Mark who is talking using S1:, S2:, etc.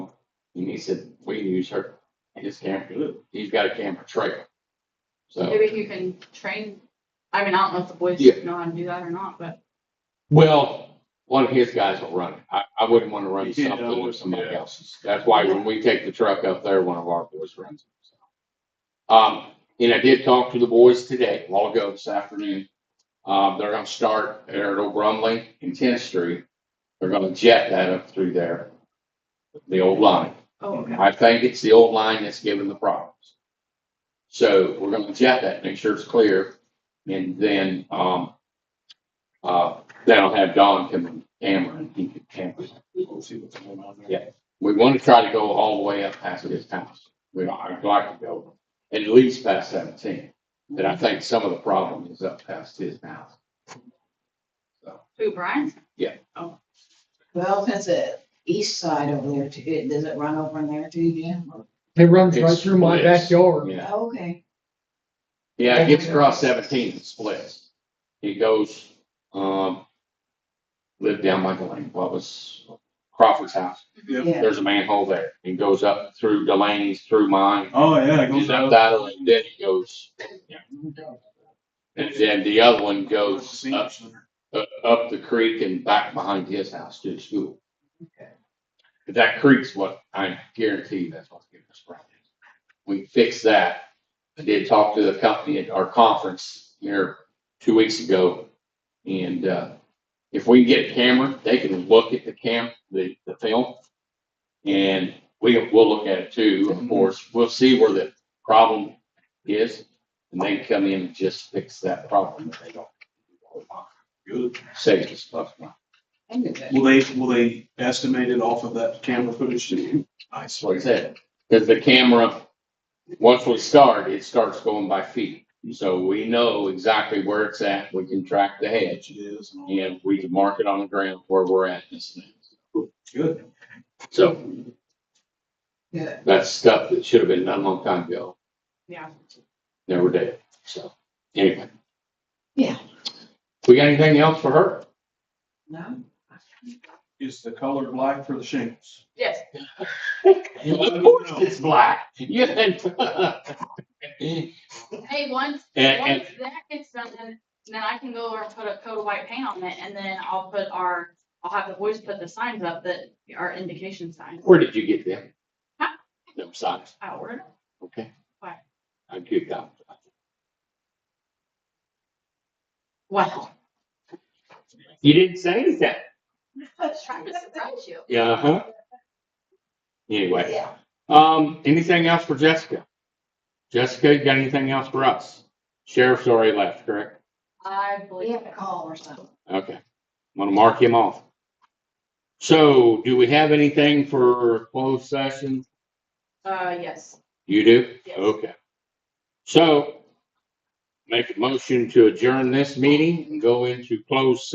S1: And he said, we can use her, his camper, he's got a camper trailer. So,
S2: Maybe you can train, I mean, I don't know if the boys
S1: Yeah.
S2: know how to do that or not, but
S1: well, one of his guys will run it. I, I wouldn't want to run
S3: You can't
S1: something with
S3: always-
S1: somebody
S3: yeah.
S1: else's. That's why when we take the truck up there, one of our boys runs it. so. Um, and I did talk to the boys today, a while ago this afternoon. Um, they're gonna start there at Old Brumley and Tenth Street. They're gonna jet that up through there, the old line.
S2: oh, okay.
S1: I think it's the old line that's giving the problems. So we're gonna jet that, make sure it's clear, and then, um, uh, then I'll have Don come and camera and he can camera.
S3: We'll see what's going on there.
S1: Yeah. We wanna try to go all the way up past his house. We, don't- I'd like to go at least past seventeen, but I think some of the problem is up past his house.
S2: Who, Brian?
S4: Well, that's a east side over there too. It- Does it run over in there too, yeah?
S5: It runs right
S1: It's
S5: through my
S1: splits.
S5: backyard.
S1: Yeah,
S4: Oh, Okay.
S1: yeah, it gets across seventeen and splits. It goes, um, lived down Michael Lane, what was Crawford's house.
S3: Yep.
S4: Yeah.
S1: there's a manhole there. It goes up through Delaney's, through mine,
S3: Oh, yeah, it
S1: goes
S3: goes
S1: up
S3: out.
S1: that way, then it goes. And then the other one goes
S3: Senior
S1: up,
S3: center.
S1: up- uh, up the creek and back behind his house to the school.
S4: Okay.
S1: But that creek's what I guarantee you that's what's giving us problems. We fix that. I did talk to the company at our conference here two weeks ago. And, uh, if we can get a camera, they can look at the cam, the, the film. And we, we'll look at it too, of course. We'll see where the problem is. And they can come in and just fix that problem if they don't.
S3: Good.
S1: Save us bucks.
S4: I knew that.
S3: Will they, will they estimate it off of that camera footage? that you- I
S1: That's what
S3: swear.
S1: I said. Because the camera, once we start, it starts going by feet. So we know exactly where it's at. We can track the
S3: It
S1: hedge
S3: is. and all that.
S1: and we can mark it on the ground where we're at. and stuff.
S3: Good.
S1: So
S4: Good.
S1: that's stuff that should have been done a long time ago.
S2: Yeah.
S1: Never did. So anyway.
S4: Yeah.
S1: We got anything else for her?
S4: No?
S3: Is the color black for the shingles?
S2: Yes,
S1: Of course it's black. Yeah. And,
S2: hey, once,
S1: and
S2: once that gets done, then then I can go over and put a coat of white paint on it, and then I'll put our, I'll have the boys put the signs up that are indication signs.
S1: where did you get them?
S2: Huh?
S1: Them socks.
S2: I ordered them.
S1: Okay.
S2: Why?
S1: I give that.
S2: Wow.
S1: You didn't say anything.
S2: Trying to surprise you.
S1: Yeah, huh? Uh-huh. Anyway,
S4: Yeah.
S1: um, anything else for Jessica? Jessica, you got anything else for us? Sheriff's already left, correct?
S2: I
S4: We
S2: believe
S4: have a
S2: it.
S4: call or something.
S1: Okay. I'm gonna mark him off. So do we have anything for closed session?
S2: Uh, yes.
S1: You do?
S2: Yes.
S1: Okay. So make a motion to adjourn this meeting and go into closed